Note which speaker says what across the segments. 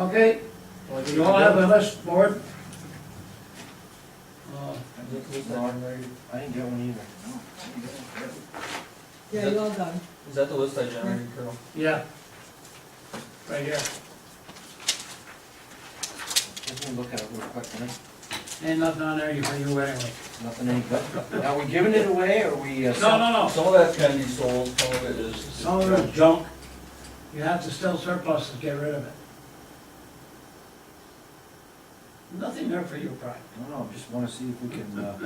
Speaker 1: Okay,
Speaker 2: Well,
Speaker 1: you all have a list, board? Uh,
Speaker 2: I didn't get one either.
Speaker 3: Yeah, you all done.
Speaker 4: Is that the list I generated, Carol?
Speaker 1: Yeah. Right here.
Speaker 2: Let me look at it real quick, man.
Speaker 1: Ain't nothing on there for you anyway.
Speaker 2: Nothing any good. Now, we giving it away or we? uh,
Speaker 1: No, no, no.
Speaker 4: Some of that can be sold, some of it is.
Speaker 1: Some of it's junk. You have to sell surplus to get rid of it. Nothing there for you, Brian.
Speaker 2: No, no, just wanna see if we can uh,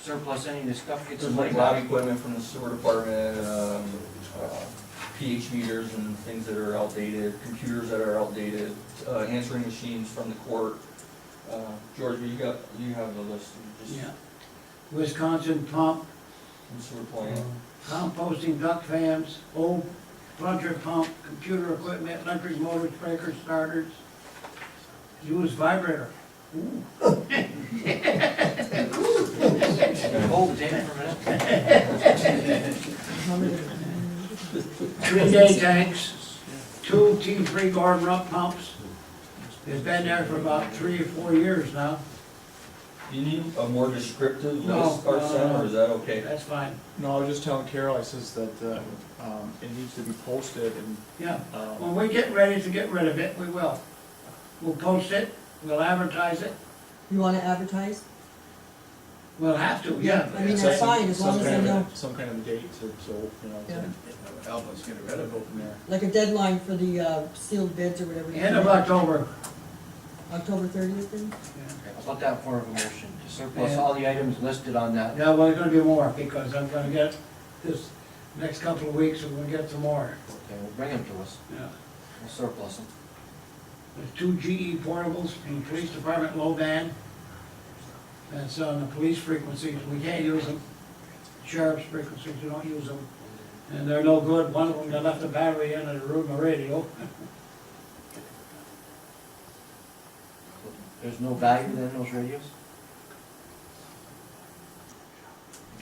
Speaker 2: surplus any of this stuff, get
Speaker 4: There's
Speaker 2: some
Speaker 4: like
Speaker 2: money
Speaker 4: lab
Speaker 2: back.
Speaker 4: equipment from the sewer department, um, uh, pH meters and things that are outdated, computers that are outdated, uh, answering machines from the court. Uh, George, you got, you have the list, you just,
Speaker 1: Yeah. Wisconsin pump,
Speaker 4: from sewer plant.
Speaker 1: composting duck fans, old plunger pump, computer equipment, electric motors, breakers, starters. Used vibrator. Ooh.
Speaker 2: Hold Oh, it in for a minute.
Speaker 1: three day tanks, two T three guard rump pumps. It's been there for about three or four years now,
Speaker 4: Do you need a more descriptive
Speaker 1: No,
Speaker 4: list,
Speaker 1: no, no,
Speaker 4: Carson,
Speaker 1: no.
Speaker 4: or is that okay?
Speaker 1: that's fine,
Speaker 5: No, I was just telling Carol, I says that, uh, um, it needs to be posted and,
Speaker 1: yeah.
Speaker 5: um,
Speaker 1: When we get ready to get rid of it, we will. We'll post it, we'll advertise it,
Speaker 3: You wanna advertise?
Speaker 1: we'll have to, yeah.
Speaker 3: I mean, that's fine, as long
Speaker 5: some
Speaker 3: as I
Speaker 5: kind of a-
Speaker 3: know,
Speaker 5: Some kind of a date, so, so, you know,
Speaker 3: Yeah.
Speaker 5: to help us get rid of it from there.
Speaker 3: like a deadline for the uh, sealed bids or whatever. you
Speaker 1: End of
Speaker 3: do.
Speaker 1: October.
Speaker 3: October thirtieth then?
Speaker 2: How about that form of a motion? To Surplus all the items listed on that.
Speaker 1: Yeah, well, there's gonna be more, because I'm gonna get this, next couple of weeks, we're gonna get some more,
Speaker 2: Okay, well, bring them to us.
Speaker 1: yeah.
Speaker 2: We'll surplus them.
Speaker 1: There's two GE portables in the police department low band. That's on the police frequencies, we can't use them. Sheriff's frequencies, we don't use them. And they're no good, one of them, they left the battery in and it ruined the radio.
Speaker 2: There's no value in those radios?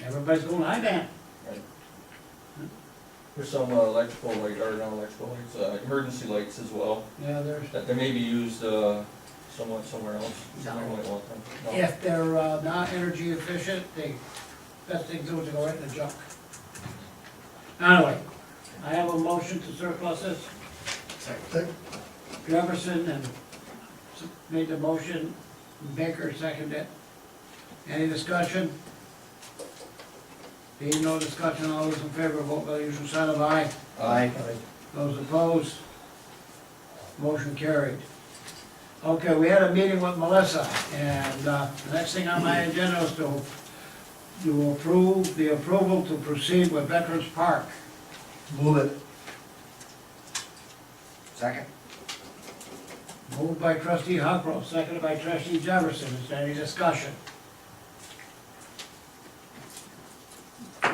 Speaker 1: Everybody's going high band.
Speaker 4: There's some uh, electrical light, or not electrical lights, uh, emergency lights as well,
Speaker 1: Yeah, there's,
Speaker 4: that they may be used, uh, somewhat somewhere else. You
Speaker 1: No.
Speaker 4: might want them. No.
Speaker 1: if they're uh, not energy efficient, the best thing to do is to go right in the junk. Anyway, I have a motion to surplus this. Jefferson and s- made the motion, Baker seconded it. Any discussion? Being no discussion, all those in favor, vote by the usual sign of aye.
Speaker 4: Uh,
Speaker 2: Aye.
Speaker 1: Those opposed? Motion carried. Okay, we had a meeting with Melissa, and uh, the next thing on my agenda is to, to approve, the approval to proceed with Veterans Park.
Speaker 2: Second?
Speaker 1: Moved by trustee Huckrow, seconded by trustee Jefferson. Is there any discussion?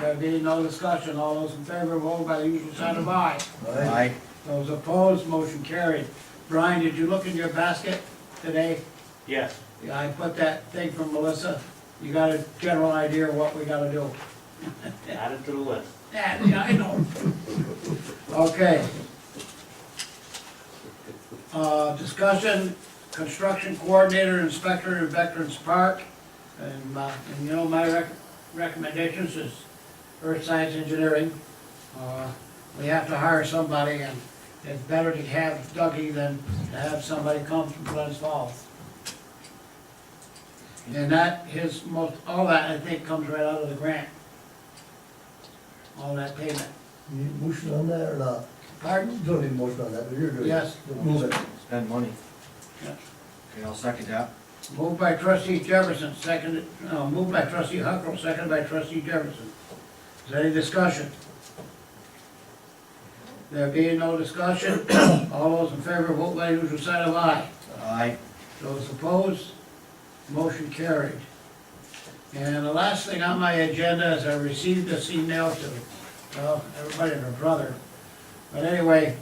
Speaker 1: There being no discussion, all those in favor, vote by the usual sign of aye.
Speaker 2: Aye.
Speaker 1: Those opposed, motion carried. Brian, did you look in your basket today?
Speaker 6: Yes,
Speaker 1: Yeah, I put that thing from Melissa. You got a general idea of what we gotta do?
Speaker 6: add it to the list.
Speaker 1: Yeah, yeah, I know. Okay. Uh, discussion, construction coordinator, inspector in Veterans Park. And, uh, and you know, my rec- recommendations is earth science engineering. Uh, We have to hire somebody and it's better to have Dougie than to have somebody come from Glens Falls. And that, his most, all that, I think, comes right out of the grant. All that payment.
Speaker 7: You need motion on that or not?
Speaker 1: Pardon?
Speaker 7: You don't need motion on that, but you're doing it.
Speaker 1: Yes.
Speaker 7: Move it.
Speaker 2: Spend money.
Speaker 1: Yeah.
Speaker 2: Okay, I'll second that.
Speaker 1: Moved by trustee Jefferson, seconded, no, moved by trustee Huckrow, seconded by trustee Jefferson. Is there any discussion? There being no discussion, all those in favor, vote by the usual sign of aye.
Speaker 2: Aye.
Speaker 1: Those opposed, motion carried. And the last thing on my agenda is I received this email to, well, everybody and their brother. But anyway,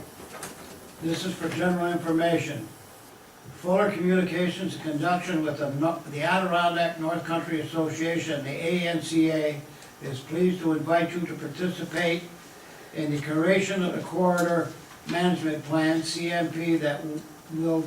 Speaker 1: this is for general information. Fuller Communications in conjunction with the No- the Adirondack North Country Association, the ANCA, is pleased to invite you to participate in the creation of the corridor management plan, CMP, that we'll